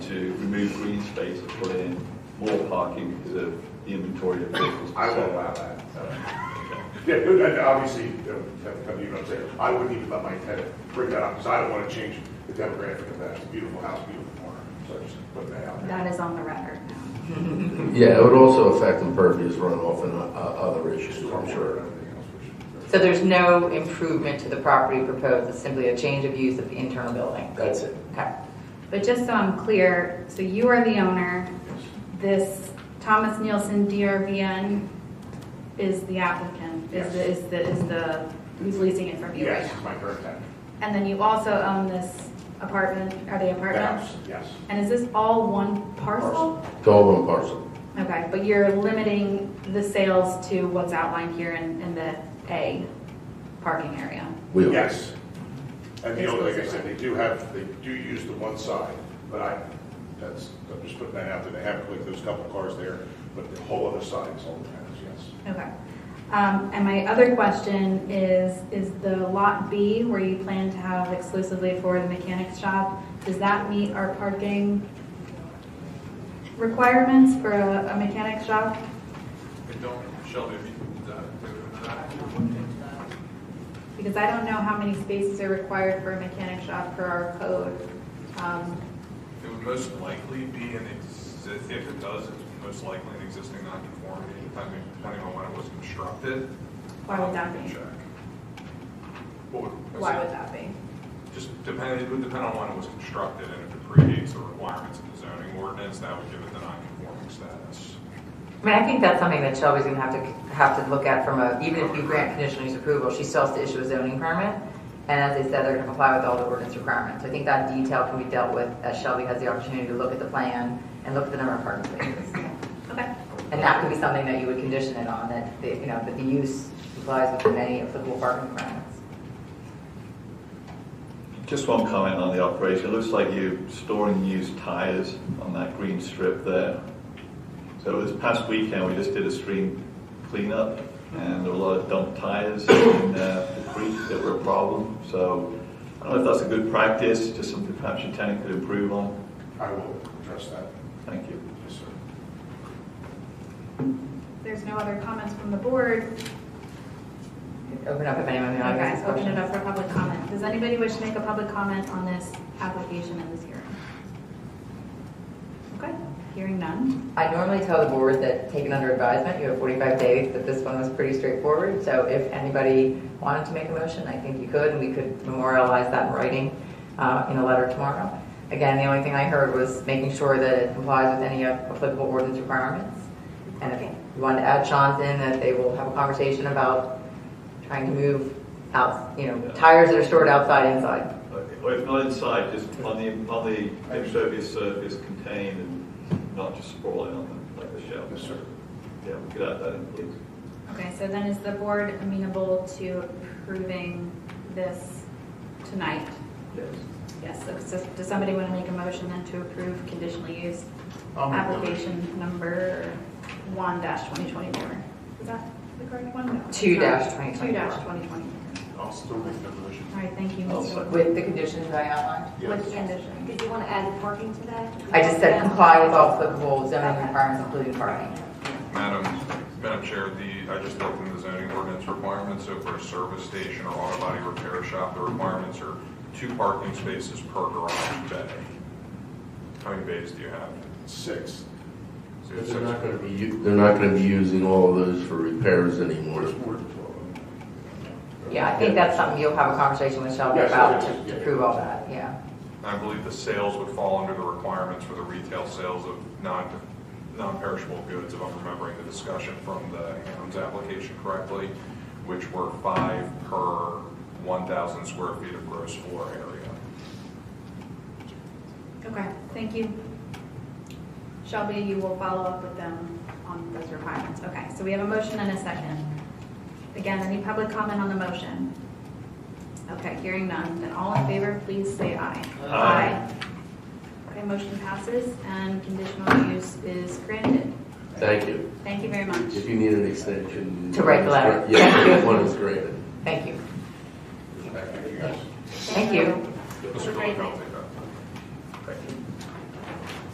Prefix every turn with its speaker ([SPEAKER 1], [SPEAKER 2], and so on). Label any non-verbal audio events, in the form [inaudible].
[SPEAKER 1] to remove green space and put in more parking because of the inventory of vehicles.
[SPEAKER 2] I won't allow that, so. [laughs]
[SPEAKER 1] Okay.
[SPEAKER 2] Yeah, good, and obviously, um, have to come to you, I'm saying, I wouldn't even let my tenant bring that up, because I don't want to change the demographic of that, it's a beautiful house, beautiful corner, so I just put that out there.
[SPEAKER 3] That is on the record now.
[SPEAKER 4] Yeah, it would also affect impervious runoff and uh, other issues, I'm
[SPEAKER 2] Stormwater
[SPEAKER 4] sure.
[SPEAKER 2] and everything else, which-
[SPEAKER 5] So there's no improvement to the property proposed, it's simply a change of use of the internal building?
[SPEAKER 4] That's it.
[SPEAKER 5] Okay.
[SPEAKER 3] But just so I'm clear, so you are the owner, this Thomas Nielsen DRVN is the applicant, is the, is the, is the, who's leasing it from you right
[SPEAKER 2] Yes,
[SPEAKER 3] now?
[SPEAKER 2] my current tenant.
[SPEAKER 3] And then you also own this apartment, are they
[SPEAKER 2] The
[SPEAKER 3] apartments?
[SPEAKER 2] house, yes.
[SPEAKER 3] And is this all one parcel?
[SPEAKER 4] It's all one parcel.
[SPEAKER 3] Okay, but you're limiting the sales to what's outlined here in, in the A parking area?
[SPEAKER 4] We are.
[SPEAKER 2] Yes. And the only, like I said, they do have, they do use the one side, but I, that's, I'm just putting that out there, they have, like, those couple cars there, but the whole other side is all the tenants, yes.
[SPEAKER 3] Okay. Um, And my other question is, is the lot B where you plan to have exclusively for the mechanic shop, does that meet our parking requirements for a a mechanic shop?
[SPEAKER 6] They don't, Shelby, if you, uh, do that.
[SPEAKER 3] Because I don't know how many spaces are required for a mechanic shop per our code. Um,
[SPEAKER 6] it would most likely be an, ex- if it does, it's most likely an existing non-conformity, depending depending on when it was constructed.
[SPEAKER 3] Why would that
[SPEAKER 6] Can
[SPEAKER 3] be?
[SPEAKER 6] check. What would-
[SPEAKER 3] Why would that be?
[SPEAKER 6] Just depend, it would depend on when it was constructed, and if it predates the requirements of the zoning ordinance, that would give it the non-conforming status.
[SPEAKER 5] I mean, I think that's something that Shelby's gonna have to, have to look at from a, even if you grant conditional use approval, she still has to issue a zoning permit. And as they said, they're gonna comply with all the ordinance requirements. I think that detail can be dealt with as Shelby has the opportunity to look at the plan and look at the number of parking spaces.
[SPEAKER 3] Okay.
[SPEAKER 5] And that could be something that you would condition it on, that, the- you know, that the use complies with the many applicable parking requirements.
[SPEAKER 1] Just one comment on the operation. It looks like you're storing used tires on that green strip there. So this past weekend, we just did a stream cleanup, and there were a lot of dump tires in uh, the creek that were a problem. So I don't know if that's a good practice, just something perhaps your tenant could improve on.
[SPEAKER 2] I will address that,
[SPEAKER 1] Thank you.
[SPEAKER 2] yes, sir.
[SPEAKER 3] If There's no other comments from the board.
[SPEAKER 5] Open up if anyone in the
[SPEAKER 3] Okay,
[SPEAKER 5] audience has
[SPEAKER 3] open it
[SPEAKER 5] questions.
[SPEAKER 3] up for public comment. Does anybody wish to make a public comment on this application in this hearing? Okay, hearing none.
[SPEAKER 5] I normally tell the board that taken under advisement, you have 45 days, but this one was pretty straightforward. So if anybody wanted to make a motion, I think you could, and we could memorialize that in writing uh, in a letter tomorrow. Again, the only thing I heard was making sure that it complies with any applicable ordinance requirements. And if you want to add Sean's in, that they will have a conversation about trying to move out, you know, tires that are stored outside, inside.
[SPEAKER 1] Or if not inside, just on the, on the impervious surface contained and not just sprawling on them like the shelf.
[SPEAKER 2] Yes, sir.
[SPEAKER 1] Yeah, we could add that in, please.
[SPEAKER 3] Okay, so then is the board amenable to approving this tonight?
[SPEAKER 1] Yes.
[SPEAKER 3] Yes, so- so does somebody want to make a motion then to approve conditional use
[SPEAKER 2] I'll make the motion.
[SPEAKER 3] application number one dash twenty twenty-four? Is that the correct one? No.
[SPEAKER 5] Two dash 2024.
[SPEAKER 3] Two dash twenty twenty-four.
[SPEAKER 2] I'll still make that motion.
[SPEAKER 3] All right, thank you,
[SPEAKER 1] I'll
[SPEAKER 3] Mr.
[SPEAKER 1] second.
[SPEAKER 5] With the conditions that I outlined.
[SPEAKER 3] With the condition.
[SPEAKER 7] Did you want to add parking to that?
[SPEAKER 5] I just said comply with all applicable zoning requirements, including parking.
[SPEAKER 6] Madam, Madam Chair, the, I just looked in the zoning ordinance requirements, so for a service station or auto body repair shop, the requirements are two parking spaces per garage bay. How many bays do you have?
[SPEAKER 2] Six.
[SPEAKER 6] So you have
[SPEAKER 4] They're
[SPEAKER 6] six-
[SPEAKER 4] not gonna be u- they're not gonna be using all of those for repairs anymore.
[SPEAKER 2] There's more than 12 of them.
[SPEAKER 5] Yeah, I think that's something you'll have a conversation with Shelby
[SPEAKER 2] Yes,
[SPEAKER 5] about
[SPEAKER 2] yes,
[SPEAKER 5] to
[SPEAKER 2] yes.
[SPEAKER 5] to prove all that, yeah.
[SPEAKER 6] I believe the sales would fall under the requirements for the retail sales of non, non-perishable goods, if I'm remembering the discussion from the Hams application correctly, which were five per 1,000 square feet of gross floor area.
[SPEAKER 3] Okay, thank you. Shelby, you will follow up with them on those requirements. Okay, so we have a motion and a second. Again, any public comment on the motion? Okay, hearing none, then all in favor, please say aye.
[SPEAKER 1] Aye.
[SPEAKER 3] Okay, motion passes and conditional use is granted.
[SPEAKER 4] Thank you.
[SPEAKER 3] Thank you very much.
[SPEAKER 4] If you need an extension.
[SPEAKER 5] To write the letter.
[SPEAKER 4] Yeah, one is granted.
[SPEAKER 5] Thank you.
[SPEAKER 2] Thank you, guys.
[SPEAKER 5] Thank you.
[SPEAKER 3] Have a
[SPEAKER 6] Mr.
[SPEAKER 3] great
[SPEAKER 6] Goldfeld,
[SPEAKER 3] night.